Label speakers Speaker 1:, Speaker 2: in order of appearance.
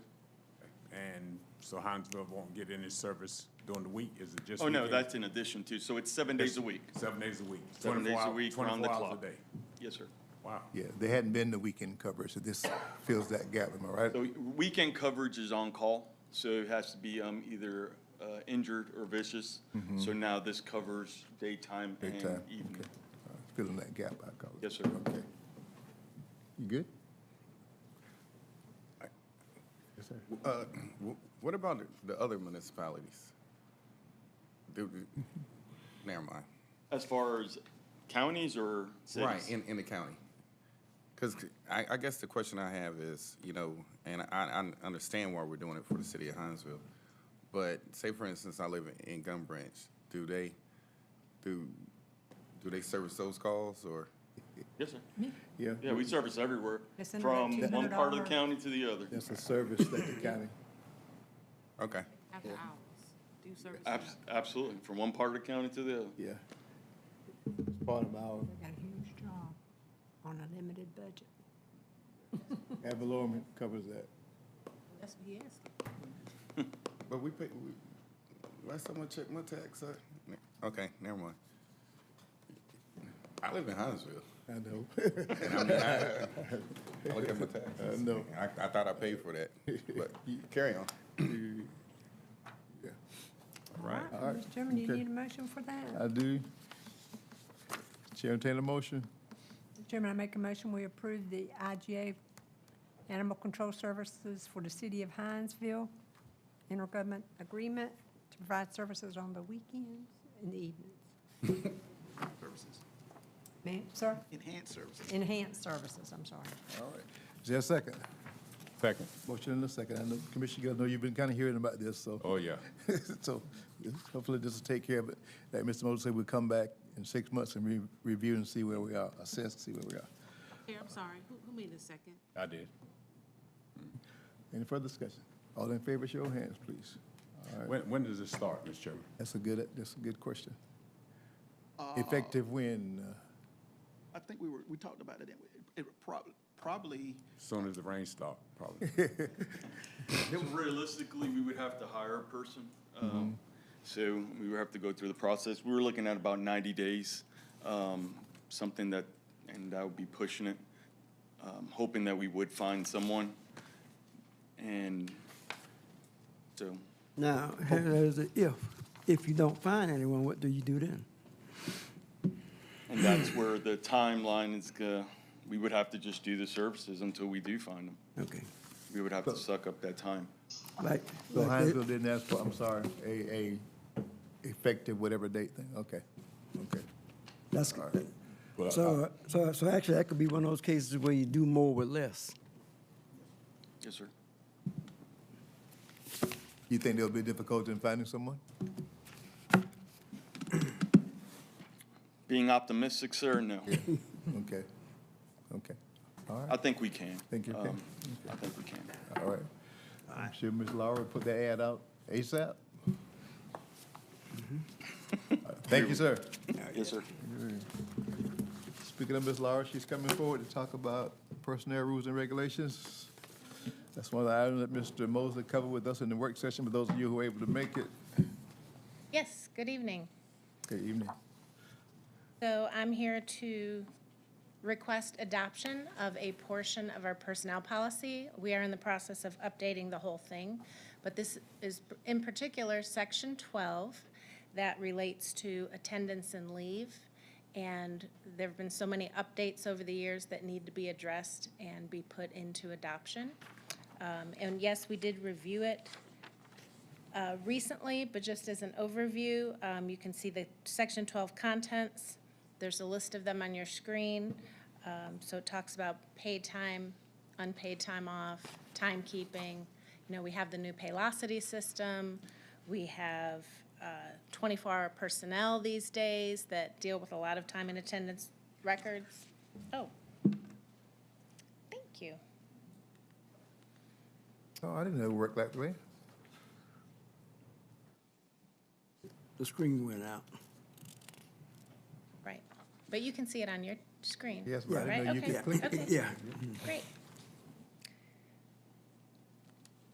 Speaker 1: So Hinesville won't get any service during the week, is it just?
Speaker 2: Oh, no,
Speaker 1: weekends?
Speaker 2: that's in addition to, so it's seven days a week.
Speaker 1: Seven days a week.
Speaker 2: Seven
Speaker 1: 24
Speaker 2: days a
Speaker 1: hour-
Speaker 2: week, round the
Speaker 1: 24 hours
Speaker 2: clock.
Speaker 1: a day.
Speaker 2: Yes, sir.
Speaker 1: Wow.
Speaker 3: Yeah, they hadn't been the weekend coverage, so this fills that gap, am I right?
Speaker 2: So weekend coverage is on-call, so it has to be um, either uh, injured or vicious. So now this covers daytime and
Speaker 3: Big time,
Speaker 2: evening.
Speaker 3: okay. All right, Filling that gap, I call it.
Speaker 2: Yes, sir.
Speaker 3: Okay. You good?
Speaker 4: Uh, wh- What about the other municipalities? Do- do- Never mind.
Speaker 2: As far as counties or cities?
Speaker 4: Right, in, in the county. Because I, I guess the question I have is, you know, and I, I understand why we're doing it for the city of Hinesville, but say, for instance, I live in- in Gun Branch, do they, do, do they service those calls, or?
Speaker 2: Yes, sir.
Speaker 5: Yeah,
Speaker 2: Yeah, we service everywhere,
Speaker 6: It's in about
Speaker 2: from one part of the
Speaker 6: $200
Speaker 2: county to the other.
Speaker 5: that's a service that the county,
Speaker 4: Okay,
Speaker 6: After hours, do service.
Speaker 2: Abs- Absolutely, from one part of the county to the other.
Speaker 5: yeah. It's part of our
Speaker 6: Got a huge job on a limited budget.
Speaker 5: ad valorem covers that.
Speaker 6: That's what he asked.
Speaker 4: but we pay, we- last time I checked my tax, I, okay, never mind. I live in Hinesville.
Speaker 5: I know.
Speaker 4: And I mean, I- I look at my taxes.
Speaker 5: I know.
Speaker 4: I, I thought I paid for that, but carry on.
Speaker 6: Right. Mr. Chairman, do you need a motion for that?
Speaker 3: I do. Chair, entertain a motion?
Speaker 6: Mr. Chairman, I make a motion, we approve the IGA Animal Control Services for the City of Hinesville intergovernment agreement to provide services on the weekends and the evenings. Services. Ma'am, sir?
Speaker 7: Enhanced services.
Speaker 6: Enhanced services, I'm sorry.
Speaker 3: All right. Is there a second?
Speaker 1: Second.
Speaker 3: Motion and a second. I know, Commissioner Gill, I know you've been kind of hearing about this, so.
Speaker 1: Oh, yeah.
Speaker 3: So hopefully this will take care of it. Like Mr. Moses said, we'll come back in six months and re- review and see where we are, assess, see where we are.
Speaker 8: Here, I'm sorry, who, who made the second?
Speaker 1: I did.
Speaker 3: Any further discussion? All in favor, show your hands, please. All right.
Speaker 1: When, when does this start, Mr. Chairman?
Speaker 3: That's a good, that's a good question. Effective when? uh,
Speaker 7: I think we were, we talked about it, didn't we? It probably, probably,
Speaker 1: Soon as the rain stop, probably.
Speaker 2: So Realistically, we would have to hire a person. um, So we would have to go through the process. We were looking at about 90 days, um, something that, and I would be pushing it, um, hoping that we would find someone. And so,
Speaker 9: Now, there's a if. If you don't find anyone, what do you do then?
Speaker 2: and that's where the timeline is, go- we would have to just do the services until we do find them.
Speaker 9: Okay.
Speaker 2: We would have to suck up that time.
Speaker 9: Like,
Speaker 3: So
Speaker 9: like they-
Speaker 3: Hinesville didn't ask for, I'm sorry, a, a effective whatever date thing, okay, okay.
Speaker 9: that's,
Speaker 1: Well,
Speaker 9: so, so, so actually, that could be one of those cases where you do more with less.
Speaker 2: Yes, sir.
Speaker 3: You think there'll be difficulty in finding someone?
Speaker 2: Being optimistic, sir, no.
Speaker 3: Okay, okay,
Speaker 2: I think we can.
Speaker 3: Think you can?
Speaker 2: Um, I think we can.
Speaker 3: all right. I'm sure Ms. Laura put that ad out ASAP. Mm-hmm. Thank you, sir.
Speaker 2: Yes, sir.
Speaker 3: Speaking of Ms. Laura, she's coming forward to talk about personnel rules and regulations. That's one of the items that Mr. Mosley covered with us in the work session, but those of you who were able to make it,
Speaker 10: Yes, good evening.
Speaker 3: good evening.
Speaker 10: So I'm here to request adoption of a portion of our personnel policy. We are in the process of updating the whole thing, but this is in particular Section 12 that relates to attendance and leave. And there have been so many updates over the years that need to be addressed and be put into adoption. Um, And yes, we did review it uh, recently, but just as an overview, um, you can see the Section 12 contents. There's a list of them on your screen. Um, So it talks about paid time, unpaid time off, timekeeping. You know, we have the new Paylocity system. We have 24-hour personnel these days that deal with a lot of time and attendance records. Oh, thank you.
Speaker 3: Oh, I didn't know it worked that way.
Speaker 9: The screen went out.
Speaker 10: Right. But you can see it on your screen.
Speaker 3: Yes, but I didn't
Speaker 10: right?
Speaker 3: know you
Speaker 10: Okay,
Speaker 3: could click.
Speaker 10: okay.
Speaker 9: Yeah,
Speaker 10: Great.